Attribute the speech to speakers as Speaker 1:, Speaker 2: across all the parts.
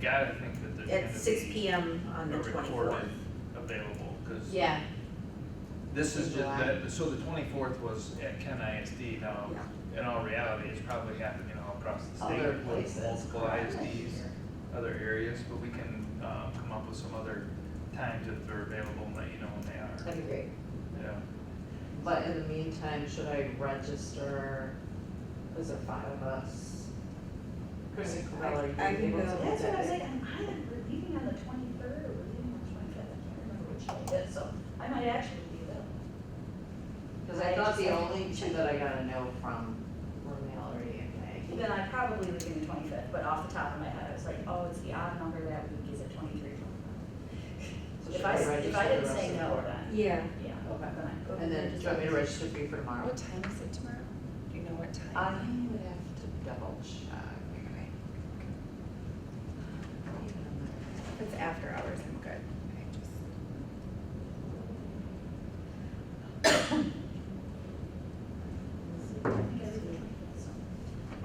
Speaker 1: gotta think that there's gonna be.
Speaker 2: At six P M on the
Speaker 1: a
Speaker 2: twenty-fourth.
Speaker 1: recorded Available, cause
Speaker 3: Yeah,
Speaker 1: this is just,
Speaker 3: July.
Speaker 1: that. so the twenty-fourth was at Ken ISD, now, in all reality, it's probably happening all across the state.
Speaker 3: other
Speaker 1: with
Speaker 3: places.
Speaker 1: Multiple ISDs, other areas, but we can, um, come up with some other times if they're available and let you know when they are,
Speaker 3: That'd be great.
Speaker 1: yeah.
Speaker 3: But in the meantime, should I register, is there five of us? Kristen Cavella,
Speaker 2: I- I
Speaker 3: are
Speaker 2: can
Speaker 3: you able to
Speaker 2: go.
Speaker 3: do
Speaker 4: That's what I
Speaker 3: that
Speaker 4: was
Speaker 3: day?
Speaker 4: like, I'm either we're leaving on the twenty-third or we're leaving on the twenty-fifth, I can't remember which day it is, so I might actually be available.
Speaker 3: Cause I thought the only two that I got a note from were E Mallory and Maggie.
Speaker 4: Then I probably would be the twenty-fifth, but off the top of my head, I was like, oh, it's the odd number that week is at twenty-three, twenty-five.
Speaker 3: So
Speaker 4: If
Speaker 3: should
Speaker 4: I, s-
Speaker 3: register
Speaker 4: if I
Speaker 3: the
Speaker 4: didn't
Speaker 3: rest
Speaker 4: say
Speaker 3: of the
Speaker 4: no,
Speaker 3: board?
Speaker 4: then,
Speaker 2: Yeah,
Speaker 4: yeah,
Speaker 3: Okay.
Speaker 4: then I.
Speaker 3: And then, do you want me to register for you for tomorrow?
Speaker 5: What time is it tomorrow? Do you know what time?
Speaker 2: Uh,
Speaker 3: I would have to double check.
Speaker 5: If it's after hours, I'm good. I just.
Speaker 4: I think I did the 25th, so.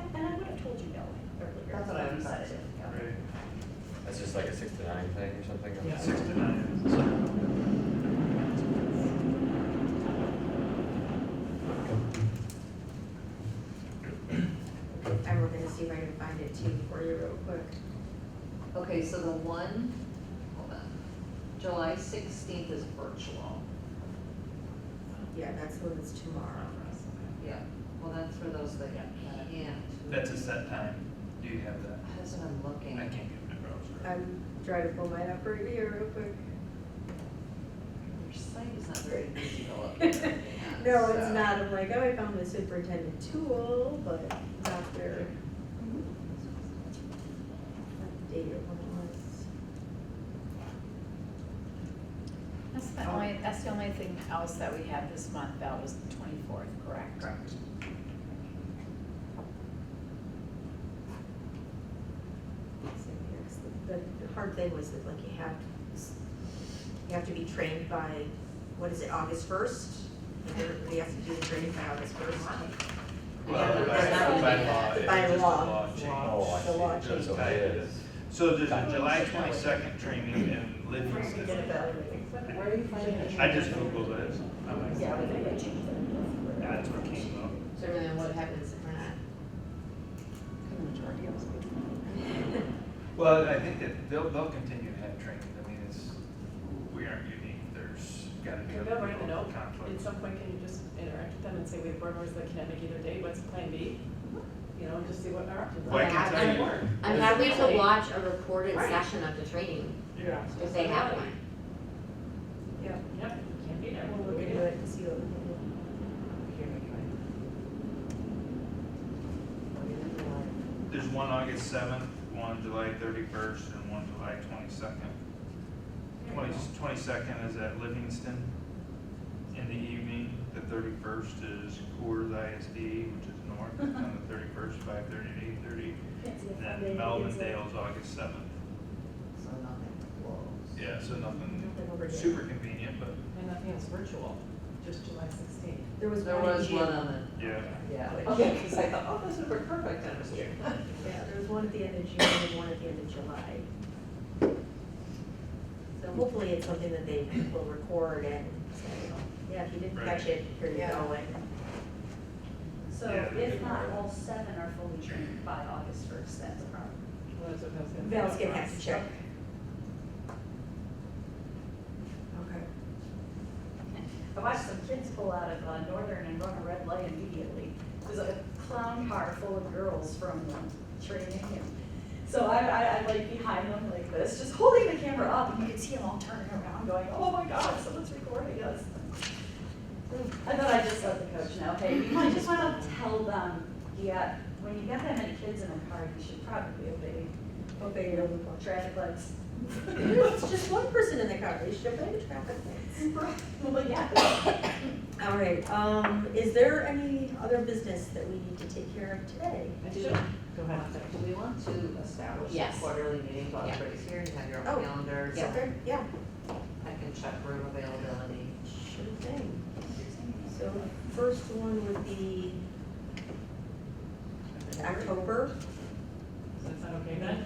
Speaker 4: And and I would have told you no earlier.
Speaker 3: That's what I
Speaker 4: if you
Speaker 3: was
Speaker 4: said
Speaker 3: saying.
Speaker 4: it.
Speaker 1: Right.
Speaker 6: That's just like a six to nine thing or something?
Speaker 1: Yeah, six to nine.
Speaker 2: I'm looking to see if I can find it too for you real quick.
Speaker 3: Okay, so the one, hold on, July sixteenth is virtual.
Speaker 2: Yeah, that's when it's tomorrow.
Speaker 3: Yeah. Well, that's for those that got in.
Speaker 1: That's a set time, do you have that?
Speaker 3: That's what I'm looking.
Speaker 1: I can't get my browser.
Speaker 2: I'm trying to pull mine up right here real quick.
Speaker 3: Your site is not very visible up here.
Speaker 2: No, it's
Speaker 3: so-
Speaker 2: not, I'm like, oh, I found the superintendent tool, but not their.
Speaker 5: Mm-hmm.
Speaker 2: Updated one was.
Speaker 7: That's
Speaker 3: Oh.
Speaker 7: the only, that's the only thing else that we had this month, that was the twenty-fourth, correct? Correct.
Speaker 2: So here's the- The, the hard thing was that like you have, you have to be trained by, what is it, August first? We have to do the training by August first.
Speaker 1: Well, by, by law, it's
Speaker 2: By
Speaker 1: just a
Speaker 2: law.
Speaker 1: law change.
Speaker 6: Oh, I
Speaker 2: The law
Speaker 6: see.
Speaker 1: change.
Speaker 6: So it is.
Speaker 1: So there's a July twenty-second training in
Speaker 4: We're
Speaker 1: Livingston.
Speaker 4: gonna get evaluated.
Speaker 3: Where are you finding it?
Speaker 1: I just Googled it. I'm like,
Speaker 4: Yeah, we gotta change that.
Speaker 1: That's what came up.
Speaker 3: So then what happens if we're not?
Speaker 5: The majority of us would.
Speaker 1: Well, I think that they'll, they'll continue to have training. I mean, it's, we aren't unique. There's gotta be
Speaker 8: Yeah,
Speaker 1: a
Speaker 8: but we're gonna
Speaker 1: little
Speaker 8: know. At
Speaker 1: conflict.
Speaker 8: some point, can you just interact with them and say, we have board members that can't make either day, what's plan B? You know, and just see what our options are.
Speaker 1: Well, I can tell you-
Speaker 9: I'm
Speaker 1: Is-
Speaker 9: happy to watch a recorded
Speaker 8: Right.
Speaker 9: session of the training
Speaker 1: Yeah.
Speaker 9: if they have one.
Speaker 8: Yeah, yeah, can't be there, we'll
Speaker 2: We're
Speaker 8: look
Speaker 2: gonna
Speaker 8: at
Speaker 2: do
Speaker 8: it.
Speaker 2: it to see what we can do.
Speaker 3: Here, we try. Oh, you're in the line.
Speaker 1: There's one August seventh, one July thirty-first, and one July twenty-second. Twenty, twenty-second is at Livingston in the evening. The thirty-first is Coors ISD, which is north, on the thirty-first, five thirty to eight thirty.
Speaker 4: Can't see if
Speaker 1: And
Speaker 4: they-
Speaker 1: then Melvin Dale's August seventh.
Speaker 3: So nothing closed.
Speaker 1: Yeah, so nothing
Speaker 2: Nothing over there.
Speaker 1: super convenient, but
Speaker 8: And nothing is virtual, just July sixteenth.
Speaker 2: There was
Speaker 3: There
Speaker 2: one in
Speaker 3: was
Speaker 2: June.
Speaker 3: one on
Speaker 1: yeah.
Speaker 3: the, yeah.
Speaker 2: Which-
Speaker 3: Okay, cause I thought, oh, this would work perfect, and it was June.
Speaker 2: Yeah, there was one at the end of June and one at the end of July. So hopefully it's something that they will record and say, "Oh, yeah, if you didn't catch it, here you go, and
Speaker 4: So
Speaker 1: Yeah, they
Speaker 4: if
Speaker 1: can
Speaker 4: not,
Speaker 1: work.
Speaker 4: all seven are fully trained by August first, that's a problem.
Speaker 8: Well, that's what I was gonna say.
Speaker 2: Val's gonna have to check. Okay.
Speaker 4: I watched some kids pull out of uh, Northern and run a red light immediately. There's a clown car full of girls from the training. and- So I, I, I'm like behind them like this, just holding the camera up and you could see them all turning around going, oh my God, someone's recording us. And then I just let the coach know, hey, you might just wanna tell them, yeah, when you get that many kids in a car, you should probably obey
Speaker 2: Okay, you don't watch.
Speaker 4: traffic lights.
Speaker 2: It's just one person in the car, they should have been traffic lights.
Speaker 4: Well, yeah.
Speaker 2: All right, um, is there any other business that we need to take care of today?
Speaker 3: I do, go ahead. Do we want to establish a
Speaker 7: Yes.
Speaker 3: quarterly meeting while
Speaker 7: Yeah.
Speaker 3: everybody's here and have your
Speaker 2: Oh,
Speaker 3: own calendar?
Speaker 2: Is there- Yeah,
Speaker 3: I can check room availability.
Speaker 2: sure thing. So first one would be October.
Speaker 8: Is that okay then?